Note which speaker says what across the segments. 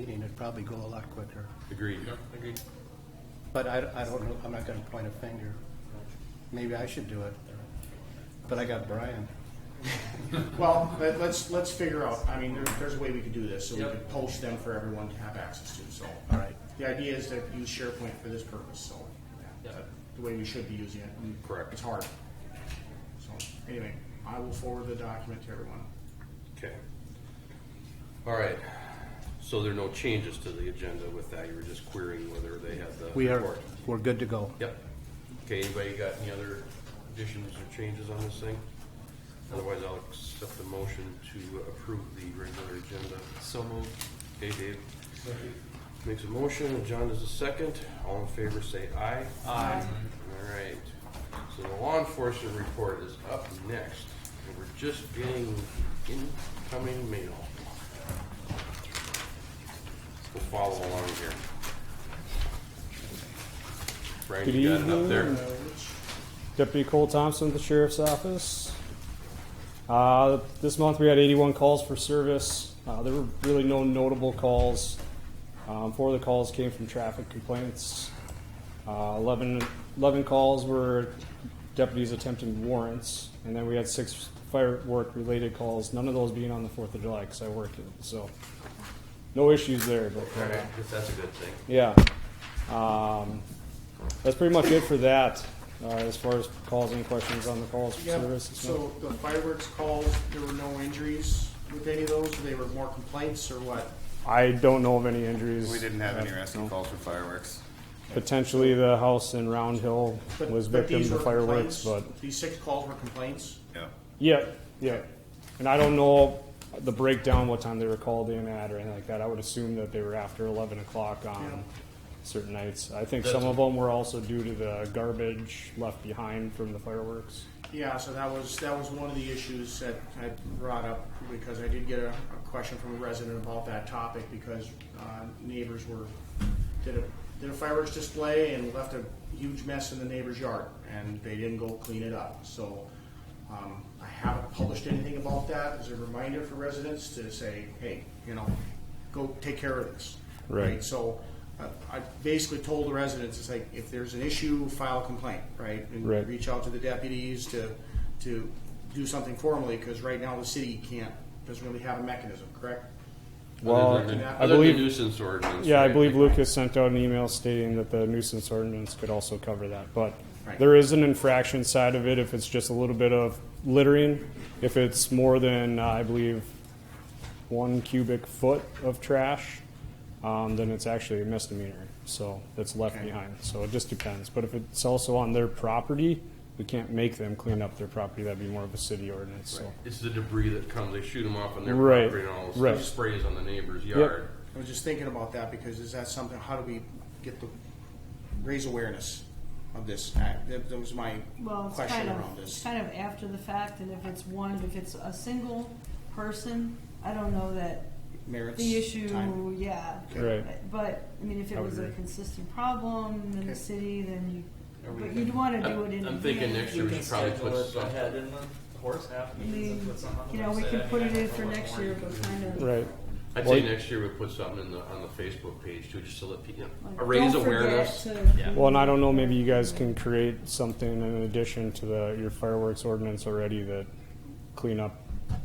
Speaker 1: meeting, it'd probably go a lot quicker.
Speaker 2: Agreed.
Speaker 3: Agreed.
Speaker 1: But I, I don't know, I'm not gonna point a finger. Maybe I should do it. But I got Brian.
Speaker 4: Well, let- let's, let's figure out, I mean, there's, there's a way we could do this, so we
Speaker 3: Yep.
Speaker 4: could post them for everyone to have access to, so.
Speaker 1: All right.
Speaker 4: The idea is to use SharePoint for this purpose, so.
Speaker 3: Yep.
Speaker 4: that- The way we should be using it. and
Speaker 2: Correct.
Speaker 4: It's hard. So, anyway, I will forward the document to everyone.
Speaker 2: Okay. All right. So there are no changes to the agenda with that. You were just querying whether they had the.
Speaker 1: We are,
Speaker 2: report.
Speaker 1: we're good to go.
Speaker 2: Yep. Okay, anybody got any other additions or changes on this thing? Otherwise, I'll accept the motion to approve the regular agenda.
Speaker 3: So moved.
Speaker 2: Okay, Dave makes a motion, and John does a second. All in favor, say aye. Aye. All right. So the law enforcement report is up next, and we're just getting incoming mail. We'll follow along here. Brian,
Speaker 5: Good
Speaker 2: you got it up
Speaker 5: evening.
Speaker 2: there?
Speaker 5: Deputy Cole Thompson with the Sheriff's Office. Uh, this month we had 81 calls for service. Uh, there were really no notable calls. Um, four of the calls came from traffic complaints. Uh, 11, 11 calls were deputies attempting warrants, and then we had six firework related calls, none of those being on the 4th of July because I worked it. So, no issues there. But,
Speaker 2: All
Speaker 5: uh,
Speaker 2: right, I guess that's a good thing.
Speaker 5: yeah. Um, that's pretty much it for that, uh, as far as calls and questions on the calls for
Speaker 4: Yeah,
Speaker 5: service. It's not-
Speaker 4: so the fireworks calls, there were no injuries with any of those, they were more complaints or what?
Speaker 5: I don't know of any injuries.
Speaker 6: We didn't have any rescue
Speaker 5: No.
Speaker 6: calls for fireworks.
Speaker 5: Potentially the house in Round Hill
Speaker 4: But-
Speaker 5: was
Speaker 4: but
Speaker 5: victim
Speaker 4: these
Speaker 5: to
Speaker 4: were
Speaker 5: fireworks, but,
Speaker 4: complaints? These six calls were complaints?
Speaker 6: Yeah.
Speaker 5: yeah, yeah. And I don't know the breakdown, what time they were called in at or anything like that. I would assume that they were after eleven o'clock on certain nights. I think some of them were also due to the garbage left behind from the fireworks.
Speaker 4: Yeah, so that was, that was one of the issues that I brought up, because I did get a, a question from a resident about that topic, because, uh, neighbors were, did a, did a fireworks display and left a huge mess in the neighbor's yard, and they didn't go clean it up, so, um, I haven't published anything about that, as a reminder for residents to say, hey, you know, go take care of this.
Speaker 5: Right.
Speaker 4: So, uh, I basically told the residents, it's like, if there's an issue, file a complaint, right? And
Speaker 5: Right.
Speaker 4: reach out to the deputies to, to do something formally, because right now the city can't, doesn't really have a mechanism, correct?
Speaker 5: Well,
Speaker 2: Other than the-
Speaker 4: I
Speaker 2: other than the
Speaker 5: believe-
Speaker 2: nuisance ordinance.
Speaker 5: Yeah, I
Speaker 2: right?
Speaker 5: believe
Speaker 2: Like-
Speaker 5: Lucas sent out an email stating that the nuisance ordinance could also cover that, but
Speaker 4: Right.
Speaker 5: there is an infraction side of it if it's just a little bit of littering. If it's more than, uh, I believe, one cubic foot of trash, um, then it's actually a misdemeanor, so that's left
Speaker 4: Okay.
Speaker 5: behind. So it just depends, but if it's also on their property, we can't make them clean up their property, that'd be more of a city ordinance, so.
Speaker 2: It's the debris that comes, they shoot them off on their
Speaker 5: Right,
Speaker 2: property and all this
Speaker 5: right.
Speaker 2: sprays on the neighbor's yard.
Speaker 4: I was just thinking about that, because is that something, how do we get the, raise awareness of this? I- That that was my
Speaker 7: Well, it's
Speaker 4: question
Speaker 7: kind
Speaker 4: around
Speaker 7: of, it's
Speaker 4: this.
Speaker 7: kind of after the fact, and if it's one, if it's a single person, I don't know that
Speaker 4: Merits,
Speaker 7: the issue,
Speaker 4: time.
Speaker 7: yeah.
Speaker 5: Okay.
Speaker 7: But, I mean, if it
Speaker 5: I would
Speaker 7: was a
Speaker 5: agree.
Speaker 7: consistent problem in
Speaker 4: Okay.
Speaker 7: the city, then you,
Speaker 3: we
Speaker 7: but
Speaker 3: gonna-
Speaker 7: you'd wanna do it
Speaker 2: I'm
Speaker 7: in.
Speaker 2: I'm thinking next year we should probably put
Speaker 3: it
Speaker 2: some,
Speaker 3: ahead in the horse half
Speaker 7: I
Speaker 3: meetings and
Speaker 7: mean,
Speaker 3: put something on the
Speaker 7: you know, we
Speaker 3: website.
Speaker 7: could
Speaker 3: I
Speaker 7: put
Speaker 3: mean,
Speaker 7: it
Speaker 3: I
Speaker 7: in
Speaker 3: don't
Speaker 7: for
Speaker 3: know what
Speaker 7: next
Speaker 3: more
Speaker 7: year,
Speaker 3: you can
Speaker 7: but
Speaker 3: do.
Speaker 7: kind of.
Speaker 5: Right,
Speaker 2: I'd say next year we put something in the, on the Facebook page too, just to let people,
Speaker 7: like,
Speaker 2: raise
Speaker 7: don't forget
Speaker 2: awareness.
Speaker 7: to-
Speaker 3: Yeah.
Speaker 5: Well, and I don't know, maybe you guys can create something in addition to the, your fireworks ordinance already that clean up,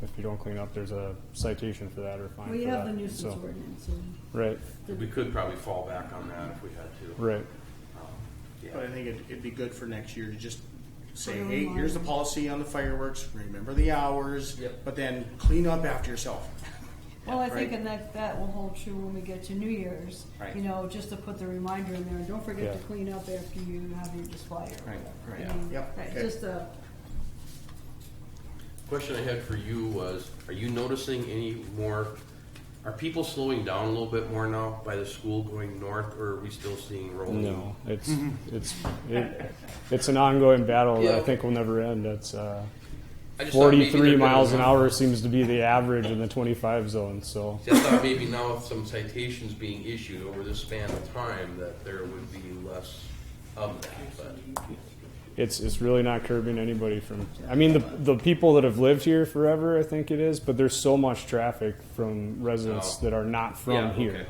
Speaker 5: if you don't clean up, there's a citation for that or fine
Speaker 7: Well, you
Speaker 5: for
Speaker 7: have the
Speaker 5: that,
Speaker 7: nuisance
Speaker 5: so-
Speaker 7: ordinance, and
Speaker 5: Right,
Speaker 2: We could probably fall back on that if we had to.
Speaker 5: right,
Speaker 4: But I think it'd, it'd be good for next year to just say,
Speaker 7: Put a
Speaker 4: hey, here's the
Speaker 7: reminder.
Speaker 4: policy on the fireworks, remember the hours,
Speaker 3: Yep.
Speaker 4: but then clean up after yourself.
Speaker 7: Well, I think
Speaker 4: Right.
Speaker 7: and that, that will hold true when we get to New Year's.
Speaker 4: Right.
Speaker 7: You know, just to put the reminder in there, don't forget to
Speaker 5: Yeah.
Speaker 7: clean up after you have your display or
Speaker 4: Right,
Speaker 7: whatever. I
Speaker 4: right.
Speaker 7: mean,
Speaker 4: Yep,
Speaker 7: right,
Speaker 4: okay.
Speaker 7: Just a,
Speaker 2: Question I had for you was, are you noticing any more, are people slowing down a little bit more now by the school going north, or are we still seeing rolling?
Speaker 5: no, it's, it's, it, it's an ongoing battle that I
Speaker 2: Yeah.
Speaker 5: think will never end, it's, uh,
Speaker 2: I just thought maybe
Speaker 5: forty-three
Speaker 2: they're gonna-
Speaker 5: miles an hour seems to be the average in the twenty-five zone, so.
Speaker 2: See, I thought maybe now with some citations being issued over this span of time, that there would be less of that, but.
Speaker 5: it's it's really not curbing anybody from. I mean, the the people that have lived here forever, I think it is, but there's so much traffic from residents
Speaker 2: Oh.
Speaker 5: that are not from
Speaker 2: Yeah,
Speaker 5: here.
Speaker 2: okay.